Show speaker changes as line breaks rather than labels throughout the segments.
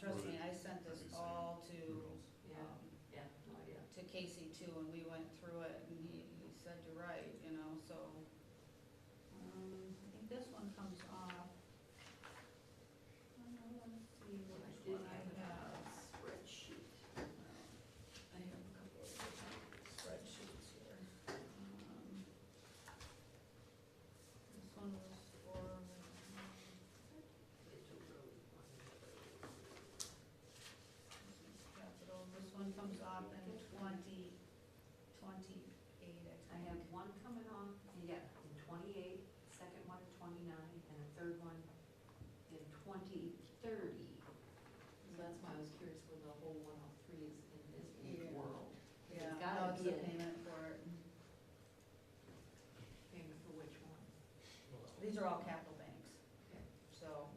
trust me, I sent this all to,
Yeah,
um,
yeah, no idea.
to Casey too, and we went through it, and he, he said you're right, you know, so. Um, I think this one comes off. Uh, Let's see,
I
which
did
one I
have a
have.
spreadsheet.
I have a couple of spreadsheets here. Um, This one was for,
Mitchell Road, one.
This is capital, this one comes off in twenty, twenty-eight, I
I
think.
have one coming off, yeah, in twenty-eight, second one in twenty-nine, and a third one in twenty thirty. So that's why I was curious when the whole one oh three is in this big
Yeah.
world. It's
Yeah, no,
gotta
it's
be
a
a
payment for it.
payment for which one?
These are all capital banks,
Okay.
so.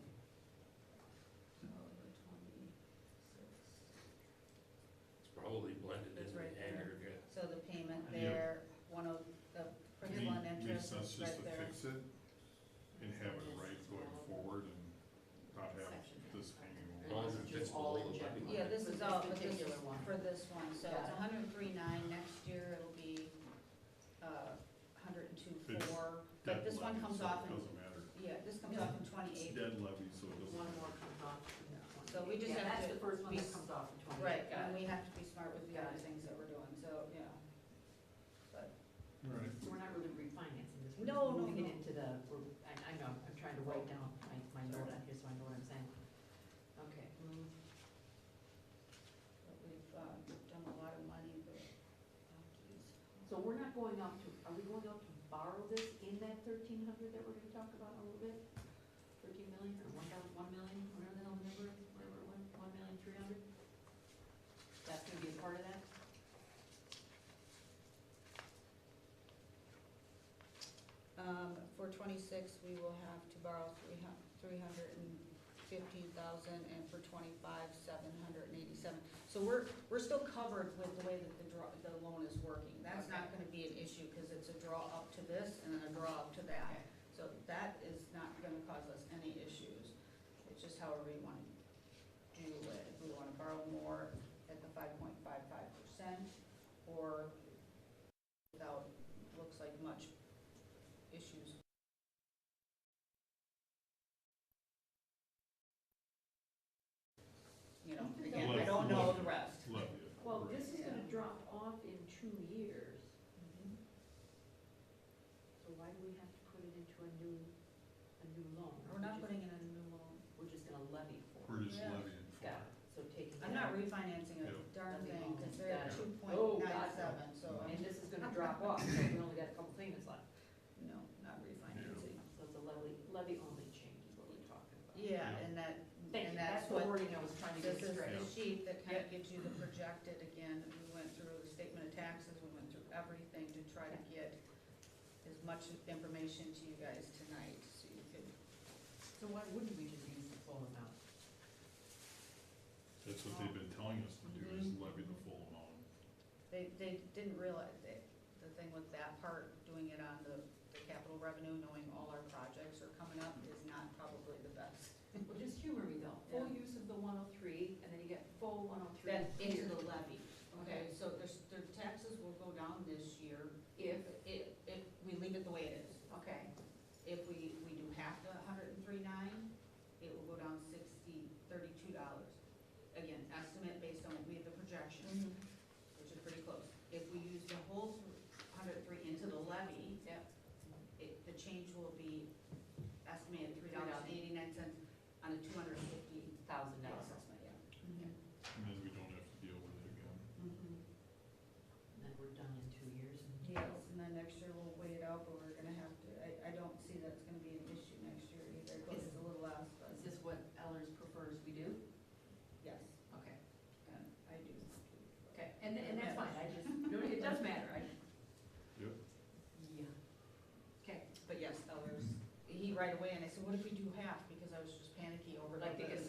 So the twenty-six.
It's probably blended
It's
in
right
the
there.
aggregate.
So the payment
Yeah.
there, one of, the principal and interest
Makes sense
is
just
right
to
there.
fix it and have it right going forward and not
Section.
have this hanging
Well,
over.
it's just all in general.
Yeah, this is
This
all, but this
particular
is
one.
for this one, so it's
Got it.
hundred and three nine, next year it'll be, uh, hundred and two
It's
four. But this one
Dead
comes
levy, so
off
It
in
doesn't matter.
Yeah, this comes off in
It's
twenty-eight.
dead levy, so it doesn't.
One more comes off from that one.
So we just
Yeah,
have to
That's the first one
be-
that comes off in twenty-eight.
Right,
Got
and
it.
we have to be smart with the
Got
other
it.
things that we're doing, so, yeah. But,
All right.
So we're not really refinancing this, we're
No,
just
no,
moving
no.
it into the, we're- I, I know, I'm trying to write down my, my note on here, so I know what I'm saying. Okay, move,
but we've uh, done a lot of money, but, oh, geez.
so we're not going out to, are we going out to borrow this in that thirteen hundred that we're gonna talk about in a little bit? Thirteen million, or one thousand, one million, whatever the hell the number is, whatever, one, one million, three hundred? That's gonna be a part of that?
Um, for twenty-six, we will have to borrow three hun, three hundred and fifteen thousand, and for twenty-five, seven hundred and eighty-seven. So we're, we're still covered with the way that the draw, the loan is working. That's not gonna be an issue, because it's a draw up to this and a draw up to that. So that is not gonna cause us any issues. It's just however you wanna do it. If we wanna borrow more at the five point five five percent, or without, looks like much issues. You know, again, I don't know the rest.
Levy. it.
Well, this is gonna
Yeah.
drop off in two years, so why do we have to put it into a new, a new loan?
We're not putting in a new loan.
We're just gonna levy for it.
We're just
Yeah.
levying for
Got it,
it.
so taking. it
I'm not
out.
refinancing a
Yeah.
darn thing, because they're at
Got
two
it.
point nine seven, so,
And
I'm-
this is gonna drop off, so we only got a couple payments left.
no, not refinancing.
So it's a levy, levy only change is what we're talking about.
Yeah, and that,
Thank you,
and that's
that's the
what
wording I was trying to
This
get
is
straight.
the sheet that kind of gives you the projected, again, we went through the statement of taxes, we went through everything to try to get as much information to you guys tonight, so you could,
So why wouldn't we just use the full amount?
That's what they've been telling us to do, is
Mm-hmm.
levy the full amount.
they, they didn't realize that, the thing with that part, doing it on the, the capital revenue, knowing all our projects are coming up, is not probably the best.
Well, just humor me though,
Yeah.
full use of the one oh three, and then you get full one oh three
That
here.
into the levy, okay, so there's, their taxes will go down this year if, if, if we leave it the way it is.
Okay,
If we, we do half the hundred and three nine, it will go down sixty, thirty-two dollars. Again, estimate based on, we have the projections, which is pretty close. If we use the whole hundred and three into the levy,
yep,
it, the change will be estimated three dollars and eighty-nine cents on a two hundred and fifty
thousand
dollar
dollars.
assessment, yeah.
And then we don't have to deal with it again.
Mhm.
And then we're done in two years.
Yes, and then next year we'll wait it out, but we're gonna have to, I, I don't see that's gonna be an issue next year either, because it's a little less,
Is
but,
this what Ellers prefers we do?
yes,
Okay.
uh, I do.
Okay, and, and that's fine, I just, no, it does matter, I,
Yep.
yeah. Okay,
But yes, Ellers, he right away, and I said, what if we do half, because I was just panicky over
Like,
like
because
this. oh,